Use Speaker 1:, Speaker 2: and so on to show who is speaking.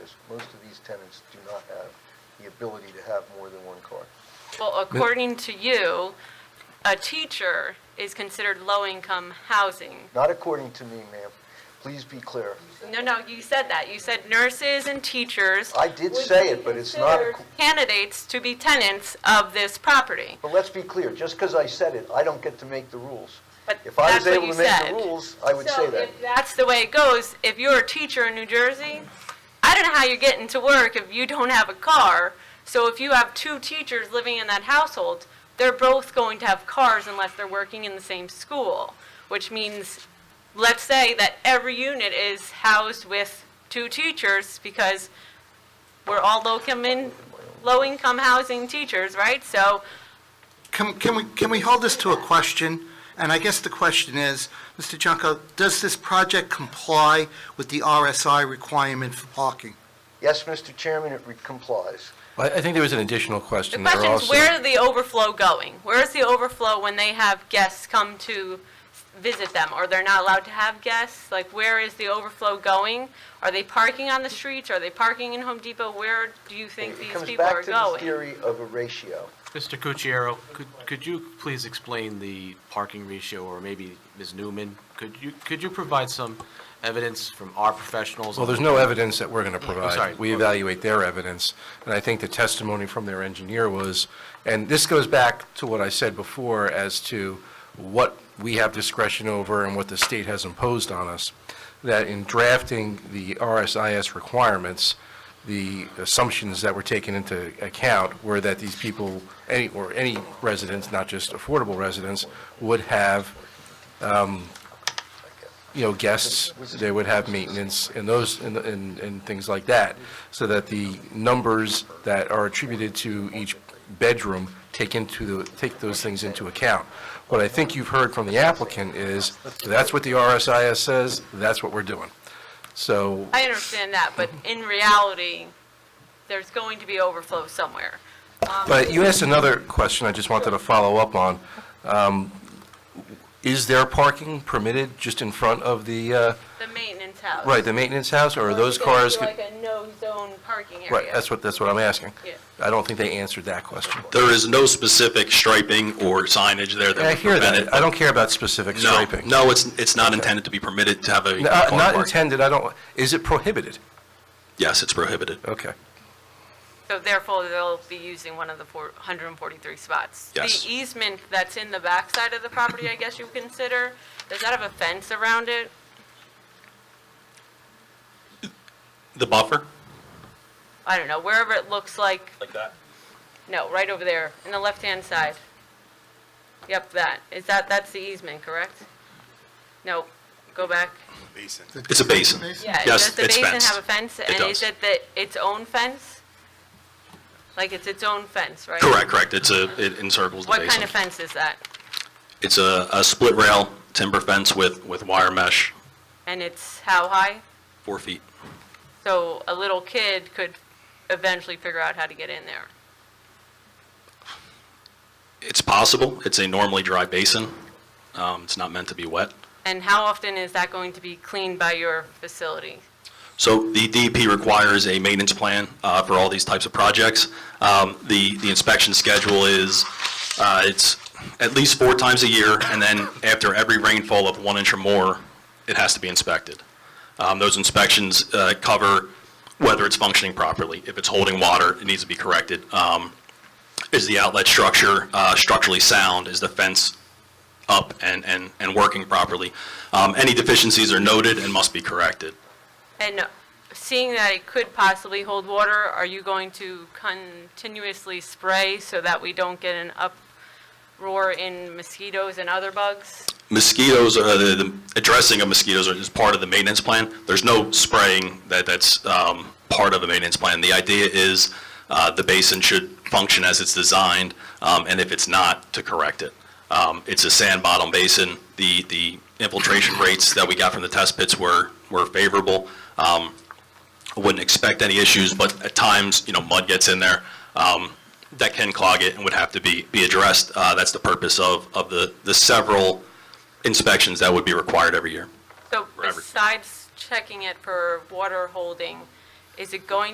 Speaker 1: because most of these tenants do not have the ability to have more than one car.
Speaker 2: Well, according to you, a teacher is considered low-income housing.
Speaker 1: Not according to me, ma'am. Please be clear.
Speaker 2: No, no, you said that. You said nurses and teachers,
Speaker 1: I did say it, but it's not, ac-
Speaker 2: candidates to be tenants of this property.
Speaker 1: but let's be clear, just because I said it, I don't get to make the rules.
Speaker 2: But
Speaker 1: If I was
Speaker 2: that's what
Speaker 1: able
Speaker 2: you
Speaker 1: to make
Speaker 2: said.
Speaker 1: the rules, I would say
Speaker 2: So
Speaker 1: that.
Speaker 2: if that's the way it goes, if you're a teacher in New Jersey, I don't know how you're getting to work if you don't have a car. So if you have two teachers living in that household, they're both going to have cars unless they're working in the same school, which means, let's say that every unit is housed with two teachers because we're all low-income, in- low-income housing teachers, right? So
Speaker 3: Can, can we, can we hold this to a question? And I guess the question is, Mr. Junko, does this project comply with the RSI requirement for parking?
Speaker 1: Yes, Mr. Chairman, it re- complies.
Speaker 4: I I think there was an additional
Speaker 2: The
Speaker 4: question there also.
Speaker 2: question is, where is the overflow going? Where is the overflow when they have guests come to visit them? Or they're not allowed to have guests? Like, where is the overflow going? Are they parking on the streets? Are they parking in Home Depot? Where do you think
Speaker 1: It
Speaker 2: these
Speaker 1: comes
Speaker 2: people are
Speaker 1: back to the
Speaker 2: going?
Speaker 1: theory of a ratio.
Speaker 5: Mr. Cucchiaro, could, could you please explain the parking ratio, or maybe Ms. Newman? Could you, could you provide some evidence from our professionals?
Speaker 4: Well, there's no evidence that we're going to provide.
Speaker 5: sorry.
Speaker 4: We evaluate their evidence, and I think the testimony from their engineer was, and this goes back to what I said before as to what we have discretion over and what the state has imposed on us, that in drafting the RSIS requirements, the assumptions that were taken into account were that these people, any, or any residents, not just affordable residents, would have you know, guests, they would have maintenance and those, and, and, and things like that, so that the numbers that are attributed to each bedroom take into the, take those things into account. What I think you've heard from the applicant is, that's what the RSIS says, that's what we're doing. So,
Speaker 2: I understand that, but in reality, there's going to be overflow somewhere.
Speaker 4: but you asked another question I just wanted to follow up on. Um, Is there parking permitted just in front of the, uh,
Speaker 2: The maintenance house.
Speaker 4: right, the maintenance house, or are
Speaker 2: Or is
Speaker 4: those
Speaker 2: it gonna be
Speaker 4: cars?
Speaker 2: Like a no-zone parking area.
Speaker 4: Right, that's what, that's what I'm asking.
Speaker 2: Yeah.
Speaker 4: I don't think they answered that question.
Speaker 6: There is no specific striping or signage there
Speaker 4: I
Speaker 6: that would
Speaker 4: hear
Speaker 6: prevent it.
Speaker 4: that. I don't care about specific striping.
Speaker 6: No, no, it's, it's not intended to be permitted to have a
Speaker 4: N-
Speaker 6: car
Speaker 4: uh, Not
Speaker 6: park.
Speaker 4: intended, I don't, is it prohibited?
Speaker 6: Yes, it's prohibited,
Speaker 4: Okay.
Speaker 2: So therefore, they'll be using one of the four- 143 spots.
Speaker 6: Yes.
Speaker 2: The easement that's in the backside of the property, I guess you would consider, does that have a fence around it?
Speaker 6: the buffer,
Speaker 2: I don't know, wherever it looks like,
Speaker 6: like that.
Speaker 2: no, right over there, in the left-hand side. Yep, that, is that, that's the easement, correct? No, go back.
Speaker 6: It's a basin.
Speaker 2: Yeah,
Speaker 6: Yes,
Speaker 2: does the
Speaker 6: it's
Speaker 2: basin
Speaker 6: fenced.
Speaker 2: have a fence? And is
Speaker 6: does.
Speaker 2: it the, its own fence? Like, it's its own fence, right?
Speaker 6: Correct, correct. It's a, it encircles the
Speaker 2: What kind
Speaker 6: basin.
Speaker 2: of fence is that?
Speaker 6: It's a, a split rail timber fence with, with wire mesh,
Speaker 2: And it's how high?
Speaker 6: four feet.
Speaker 2: So a little kid could eventually figure out how to get in there.
Speaker 6: It's possible. It's a normally dry basin. Um, it's not meant to be wet.
Speaker 2: And how often is that going to be cleaned by your facility?
Speaker 6: So the DEP requires a maintenance plan uh, for all these types of projects. Um, The the inspection schedule is, uh, it's at least four times a year, and then after every rainfall of one inch or more, it has to be inspected. Um, Those inspections uh, cover whether it's functioning properly. If it's holding water, it needs to be corrected. Um, Is the outlet structure uh, structurally sound? Is the fence up and and and working properly? Um, Any deficiencies are noted and must be corrected.
Speaker 2: And seeing that it could possibly hold water, are you going to continuously spray so that we don't get an uproar in mosquitoes and other bugs?
Speaker 6: mosquitoes, uh, the, the addressing of mosquitoes is part of the maintenance plan. There's no spraying that, that's, um, part of the maintenance plan. The idea is, uh, the basin should function as it's designed, um, and if it's not, to correct it. Um, it's a sand bottom basin. The, the infiltration rates that we got from the test pits were, were favorable. Um, I wouldn't expect any issues, but at times, you know, mud gets in there. Um, that can clog it and would have to be, be addressed. Uh, that's the purpose of, of the, the several inspections that would be required every year.
Speaker 2: So
Speaker 6: Robert.
Speaker 2: besides checking it for water holding, Is it going